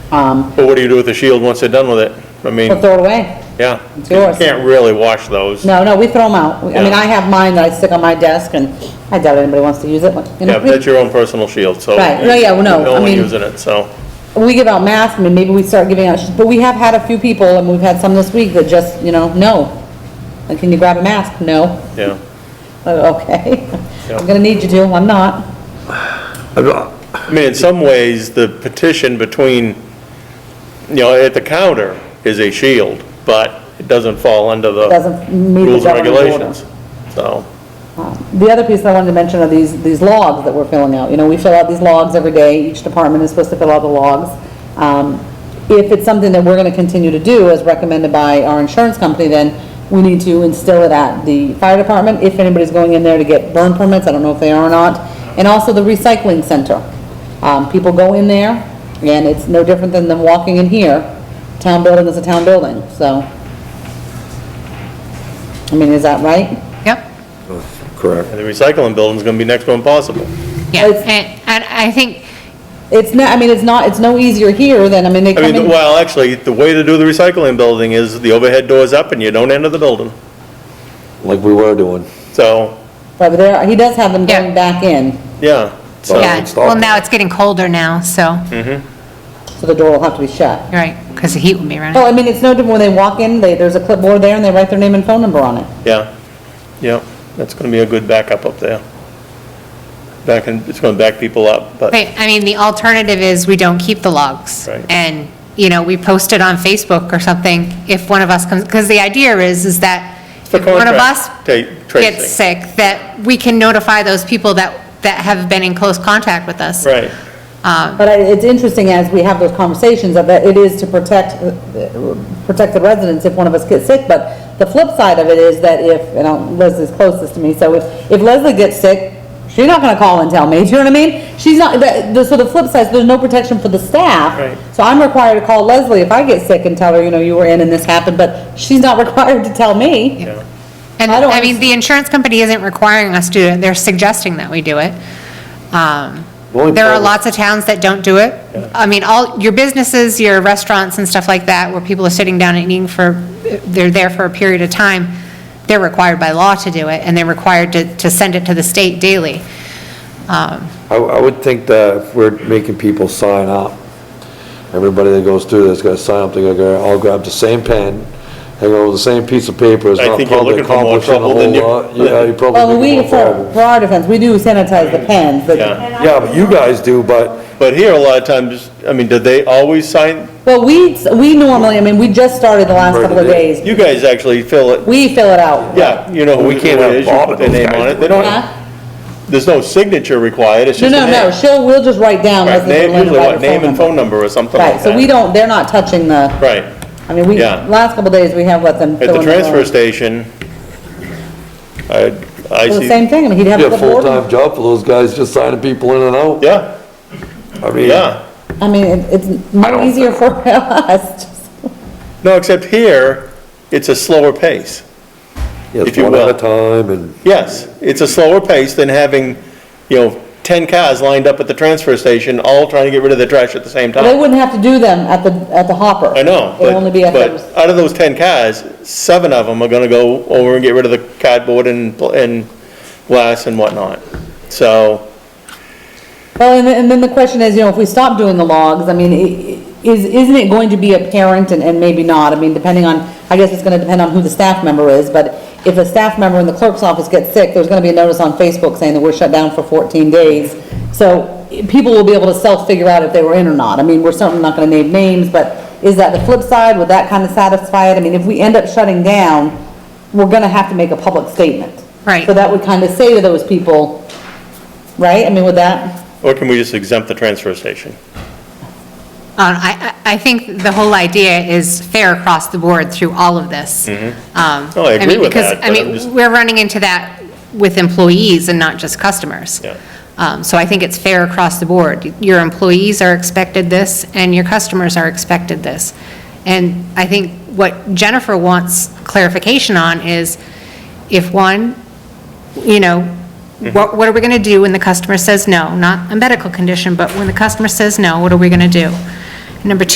um, But what do you do with the shield once they're done with it? I mean, we'll throw it away. yeah. It's yours. You can't really wash those. No, no, we throw them out. I mean, Yeah. I have mine that I stick on my desk, and I doubt anybody wants to use it. but, you know, Yeah, but that's your own personal shield, so. Right, no, yeah, well, no, I No one mean- using it, so. We give out masks, I mean, maybe we start giving out, sh- but we have had a few people, and we've had some this week that just, you know, no. Like, can you grab a mask? No. Yeah. Uh, Okay. Yeah. I'm gonna need you to, I'm not. I mean, in some ways, the petition between, you know, at the counter is a shield, but it doesn't fall under the Doesn't meet the rules and governing order. regulations. So, The other piece I wanted to mention are these, these logs that we're filling out. You know, we fill out these logs every day, each department is supposed to fill out the logs. Um, If it's something that we're going to continue to do, as recommended by our insurance company, then we need to instill it at the fire department, if anybody's going in there to get burn permits, I don't know if they are or not, and also the recycling center. Um, People go in there, and it's no different than them walking in here. Town building is a town building, so. I mean, is that right? Yep. and Correct. the recycling building's gonna be next to impossible. Yeah, It's- and, and I think, It's not, I mean, it's not, it's no easier here than, I mean, they I come mean, in, well, actually, the way to do the recycling building is the overhead door's up and you don't enter the building. Like we were doing. So, but there, he does have them going Yeah. back in, yeah, so, Well, yeah, it's not- well, now it's getting colder now, so, Hmm. you're so the door will have to be shut. right, because the heat will be running. Well, I mean, it's no different when they walk in, they, there's a clipboard there and they write their name and phone number on it. yeah, yeah, that's gonna be a good backup up there. Back, in- it's gonna back people up, but. But, I mean, the alternative is we don't keep the logs. Right. And, you know, we post it on Facebook or something if one of us comes, because the idea is, is that for if one of us contract ta- tracing. gets sick, that we can notify those people that, that have been in close contact with us. Right, But I- it's interesting as we have those conversations of that it is to protect, uh, protect the residents if one of us gets sick, but the flip side of it is that if, and I'll- Leslie's closest to me, so if, if Leslie gets sick, she's not gonna call and tell me, do you know what I mean? She's not, that, the- so the flip side, is there's no protection for the staff. Right. So I'm required to call Leslie if I get sick and tell her, you know, you were in and this happened, but she's not required to tell me. yeah. And, I don't I mean, the insurance company isn't requiring us to, do it. they're suggesting that we do it. Um, The only There are problem- lots of towns that don't do it. I mean, all, your businesses, your restaurants and stuff like that, where people are sitting down and eating for, they're there for a period of time, they're required by law to do it, and they're required to, to send it to the state daily. Um, I, I would think that if we're making people sign up, everybody that goes through this gotta sign up, they're gonna all grab the same pen, they go with the same piece of paper, it's I not think you're probably looking for more accomplishing a trouble than whole you- lot. Yeah, you Well, probably we, making more for, trouble. for our defense, we do sanitize the pens, but Yeah. Yeah, but you guys do, but But here, a lot of times, I mean, did they always sign, Well, we, we normally, I mean, we just started the last Right, couple of it days. is. you guys actually fill it, We fill it out. yeah, you know who We can't who it have is, you Bob put and their name those guys on it, do they it. Huh? don't, there's no signature required, it's No, just a no, name. no, she'll, we'll just write down Right, Leslie name, Berlin usually what, and name and write her phone phone number. number or something like Right, that. so we don't, they're not touching the, Right, I mean, we, yeah. last couple of days, we have let them at fill the in their transfer own. station, I, I Well, The see, same thing, I mean, he'd have you a have a clipboard. full-time job for those guys just signing people in and out. yeah, I mean, yeah. I mean, it- it's no easier for us. Just- No, except here, it's a slower pace. If it's you one at will. a time and, Yes, it's a slower pace than having, you know, 10 cars lined up at the transfer station, all trying to get rid of the trash at the same They time. wouldn't have to do them at the, at the hopper. I know, It'd only but, be at but the, out of those 10 cars, seven of them are gonna go over and get rid of the cardboard and, pl- and glass and whatnot. So, well, and then, and then the question is, you know, if we stop doing the logs, I mean, i- i- is, isn't it going to be apparent and, and maybe not? I mean, depending on, I guess it's gonna depend on who the staff member is, but if a staff member in the clerk's office gets sick, there's gonna be a notice on Facebook saying that we're shut down for fourteen days. So i- people will be able to self-figure out if they were in or not. I mean, we're certainly not gonna name names, but is that the flip side? Would that kinda satisfy it? I mean, if we end up shutting down, we're gonna have to make a public statement. Right. So that would kinda say to those people, right? I mean, would that? or can we just exempt the transfer station? Uh, I, I I think the whole idea is fair across the board through all of this. No, Um, Mm-hmm. Oh, I agree mean, with because, that, I but I'm just- mean, we're running into that with employees and not just customers. Yeah. Um, So I think it's fair across the board. Your employees are expected this, and your customers are expected this. And I think what Jennifer wants clarification on is, if one, you know, what, what are we going to do when the customer says no? Not a medical condition, but when the customer says no, what are we going to do? Number two.